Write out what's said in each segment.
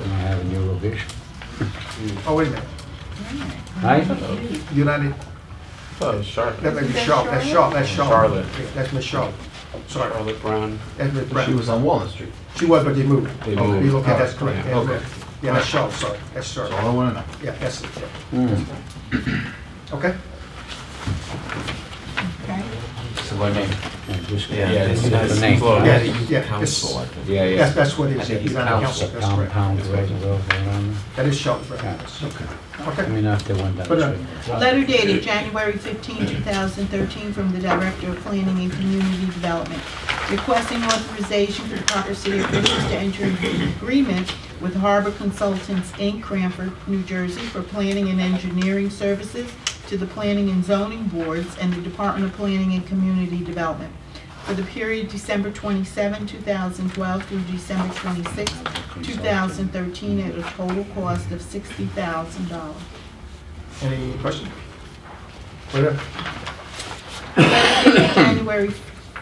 a new location. Oh, wait a minute, Right? United, Oh, Charlotte. that may be Is that Sharp, that's Sharp, that's Sharp. Charlotte. Yeah, That's Miss Sharp, sorry, Charlotte Brown. that's Miss Brown. She was on Walnut Street, She was, but they moved. They Okay, moved. Okay, that's correct. Yeah, okay. Yeah, that's Sharp, sorry, that's Sharp. that's all I want to know. Hmm. Yeah, that's it, yeah. Okay? Okay. So what name? And this- Yeah, Yeah, this it's is the it's name. close. Yeah, yeah, it's- Council, I think. Yeah, That's, yeah. that's what it I is, yeah, think he's it's on the council, Council, that's correct. compound, residence, around That is Sharp, there. right? Yeah, okay. I Okay, mean, after one down But, uh, the street. Letter dated January 15, 2013, from the Director of Planning and Community Development, requesting authorization for the Parker City officials to enter into an agreement with Harbor Consultants, Inc., Cranford, New Jersey, for planning and engineering services to the Planning and Zoning Boards and the Department of Planning and Community Development for the period December 27, 2012 through December 26, 2013, at a total cost of $60,000. any questions? Whatever. January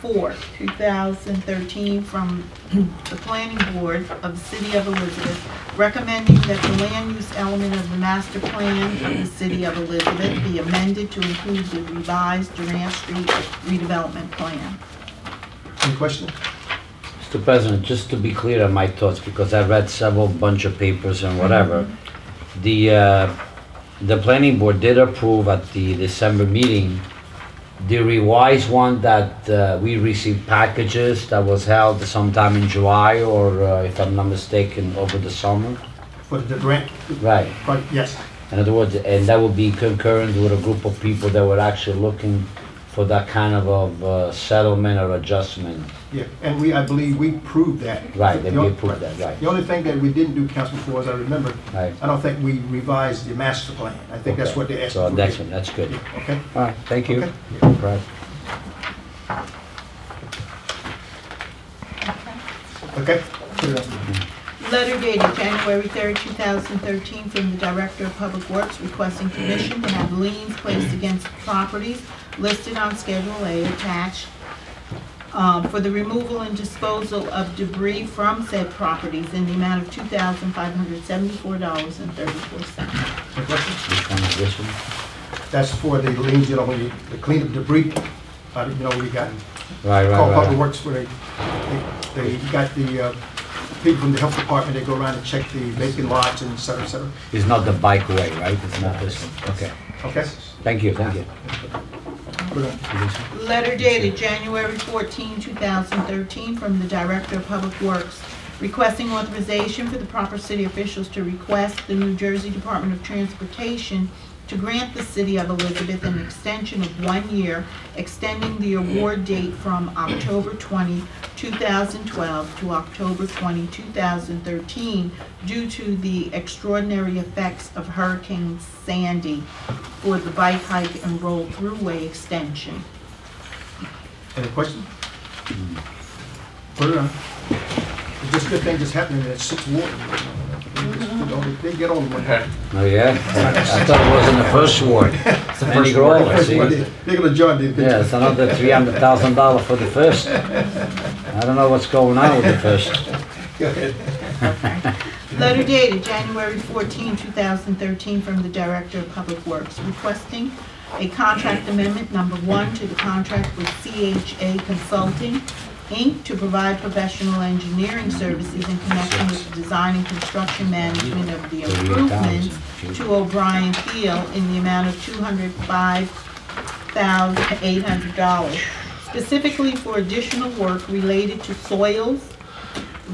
4, 2013, from the Planning Board of the City of Elizabeth, recommending that the land use element of the master plan of the City of Elizabeth be amended to include the revised Durant Street redevelopment plan. Any questions? Mr. President, just to be clear on my thoughts, because I read several bunch of papers and whatever, the, uh, the planning board did approve at the December meeting, the revised one that uh, we received packages that was held sometime in July or, uh, if I'm not mistaken, over the summer. For the grant, Right. but yes, In other words, and that would be concurrent with a group of people that were actually looking for that kind of, of uh, settlement or adjustment. yeah, and we, I believe, we proved that. Right, that The we on- approved that, right. The only thing that we didn't do, Councilman Four, as I remember, Right. I don't think we revised the master plan. I think that's Okay. what they asked. So for. that's, that's good. Okay? All right, thank you. Okay. Right. Okay? Letter dated January 3, 2013, from the Director of Public Works requesting permission to have liens placed against properties listed on Schedule A attached um, for the removal and disposal of debris from said properties in the amount of $2,574.34. Any questions? Which one is this one? That's for the liens, you know, when you, the cleanup debris, uh, you know, we got, Right, call right, Public right. Works for the, they, they got the, uh, people from the health department, they go around and check the vacant lots and et cetera, et cetera. It's not the bike way, right? It's not this one. Okay. Okay? Thank you, thank you. Put it on. Letter dated January 14, 2013, from the Director of Public Works requesting authorization for the proper city officials to request the New Jersey Department of Transportation to grant the City of Elizabeth an extension of one year, extending the award date from October 20, 2012 to October 20, 2013 due to the extraordinary effects of Hurricane Sandy for the bike hike and roll throughway extension. Any questions? Put it on. It's just a good thing that's happening at Sixth Ward. They just- you know, they- They get on one. Okay. Oh, yeah? I thought it was in the first ward. Andy Grover, see? They're gonna join the Yeah, it's another three hundred thousand dollar for the first. I don't know what's going on with the first. Letter dated January 14, 2013, from the Director of Public Works requesting a contract amendment number one to the contract with CHA Consulting, Inc., to provide professional engineering services in connection with the design and construction management of the improvements to O'Brien Field in the amount of $205,800, specifically for additional work related to soils,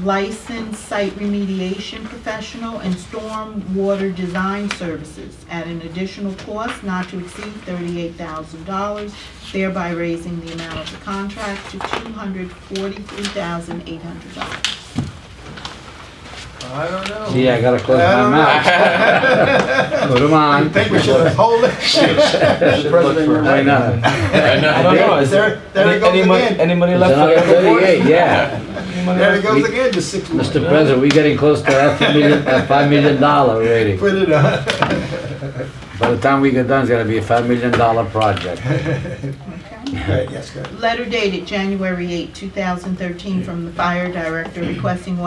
licensed site remediation professional and storm water design services at an additional cost not to exceed thirty-eight thousand dollars, thereby raising the amount of the contract to two hundred forty-three thousand eight hundred dollars. I don't know. Yeah, I gotta close my mouth. Put 'em I on. think we should hold it. Why not? I don't know. Is There- there it any- goes any mon- again. Any money It's left for another the other thirty-eight, yeah. There it goes again, the Sixth Ward. Mr. President, we're getting close to half a million, uh, five million dollar rating. Put it on. By the time we get done, it's gonna be a five million dollar project. Yes, go ahead. Letter dated January 8, 2013, from the fire director requesting one.